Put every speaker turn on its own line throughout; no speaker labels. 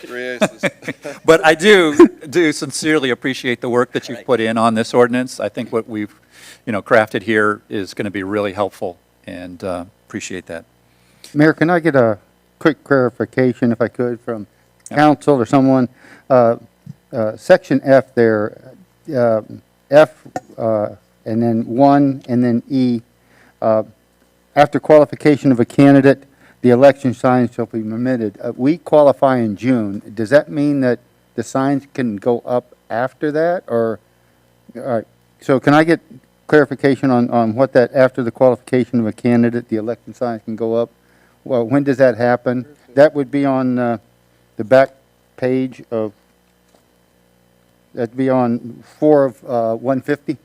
Three aces.
But I do, do sincerely appreciate the work that you've
Right.
put in on this ordinance. I think what we've, you know, crafted here is going to be really helpful, and uh, appreciate that.
Mayor, can I get a quick clarification, if I could, from council or someone? Uh, uh, Section F there, uh, F, uh, and then 1, and then E. uh, After qualification of a candidate, the election sign shall be permitted. Uh, We qualify in June. Does that mean that the signs can go up after that, or? All right, so can I get clarification on, on what that, after the qualification of a candidate, the election signs can go up? Well, when does that happen? That would be on, uh, the back page of, that'd be on four of, uh, one fifty?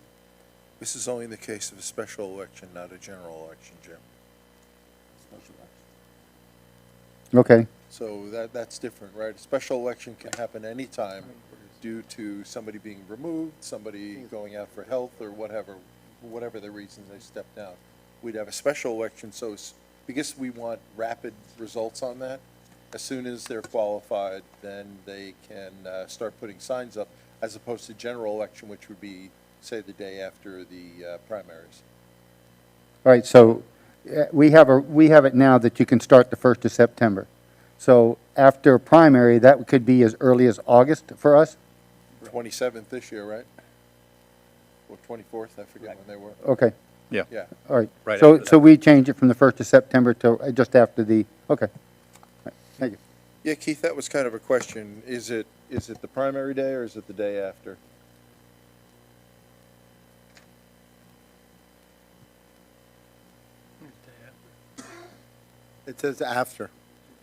This is only in the case of a special election, not a general election, Jim.
Okay,
So that, that's different, right? A special election can happen anytime due to somebody being removed, somebody going out for health or whatever, whatever the reason they stepped down. We'd have a special election, so s- because we want rapid results on that, as soon as they're qualified, then they can uh, start putting signs up, as opposed to general election, which would be, say, the day after the uh, primaries.
all right, so, uh, we have a, we have it now that you can start the first of September. So after primary, that could be as early as August for us?
Twenty-seventh this year, right? Or twenty-fourth, I forget when they were.
Okay.
Yeah.
Yeah.
All right.
Right
So,
after
so
that.
we change it from the 1st of September to uh, just after the, okay. All right, Thank you.
Yeah, Keith, that was kind of a question. Is it, is it the primary day or is it the day after?
It says after.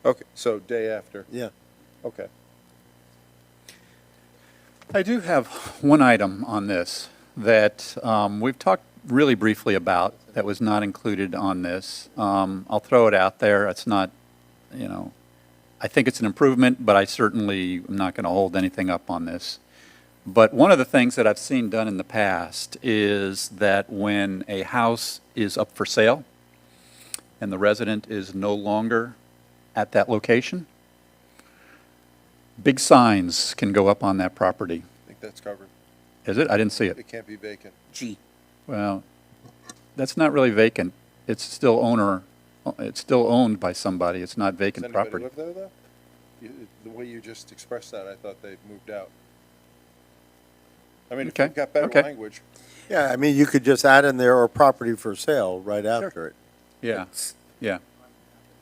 Okay, so day after,
Yeah.
okay.
I do have one item on this that um, we've talked really briefly about that was not included on this. Um, I'll throw it out there. It's not, you know, I think it's an improvement, but I certainly am not going to hold anything up on this. But one of the things that I've seen done in the past is that when a house is up for sale and the resident is no longer at that location, big signs can go up on that property.
I think that's covered.
Is it? I didn't see it.
It can't be vacant.
G.
Well, that's not really vacant. It's still owner, it's still owned by somebody. It's not
Does
vacant
anybody
property.
live there, though? You- The way you just expressed that, I thought they'd moved out. I mean, if
Okay,
you've got better
okay.
language,
Yeah, I mean, you could just add in there or property for sale right after it.
Yeah, yeah.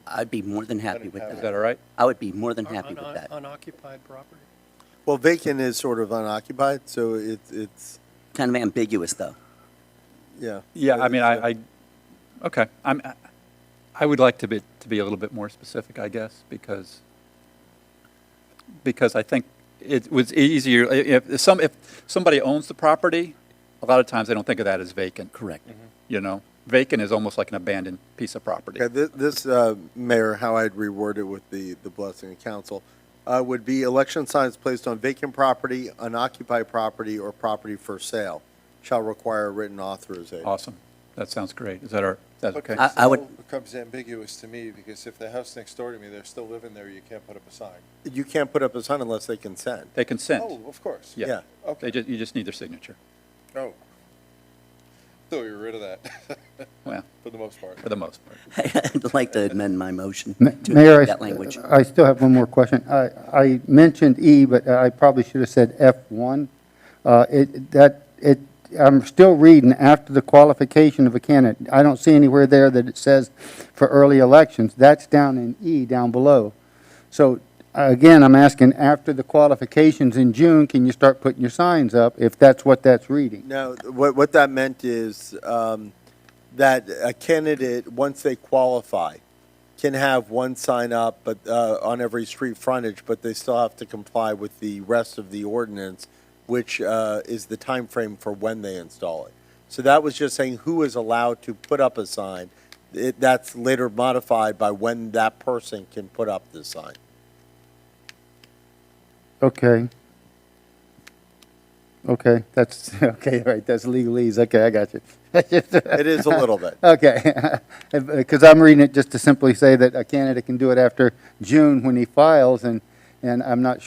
I'd be more than happy with
Is
Is
that.
that all right?
I would be more than
Or
happy with
unoc-
that.
Unoccupied property.
Well, vacant is sort of unoccupied, so it, it's,
Kind of ambiguous, though.
yeah.
Yeah, I mean, I, I, okay. I'm, I would like to be, to be a little bit more specific, I guess, because, because I think it was easier, i- if, if some, if somebody owns the property, a lot of times they don't think of that as vacant.
Correct.
You know, vacant is almost like an abandoned piece of property.
Okay, thi- this, uh, Mayor, how I'd reword it with the, the blessing of council, uh, would be election signs placed on vacant property, unoccupied property, or property for sale shall require written authorization.
Awesome. That sounds great. Is that our, that's
But
okay?
I- I would-
still Becomes ambiguous to me, because if the house next door to me, they're still living there, you can't put up a sign.
You can't put up a sign unless they consent.
They consent.
Oh, of course.
Yeah.
yeah.
Okay.
They just, you just need their signature.
Oh. Thought we were rid of that,
Well,
for the most part.
for the most part.
I'd like to amend my motion
Ma-
to
Mayor, I
include that language.
s- I still have one more question. I, I mentioned E, but I probably should have said F1. Uh, It, that, it, I'm still reading after the qualification of a candidate. I don't see anywhere there that it says for early elections. That's down in E, down below. So again, I'm asking, after the qualifications in June, can you start putting your signs up if that's what that's reading?
No, what, what that meant is um, that a candidate, once they qualify, can have one sign up, but uh, on every street frontage, but they still have to comply with the rest of the ordinance, which uh, is the time frame for when they install it. So that was just saying who is allowed to put up a sign. It, that's later modified by when that person can put up the sign.
Okay. Okay, that's, okay, all right, that's legalese, okay, I got you.
It is a little bit.
Okay, because I'm reading it just to simply say that a candidate can do it after June when he files, and And I'm not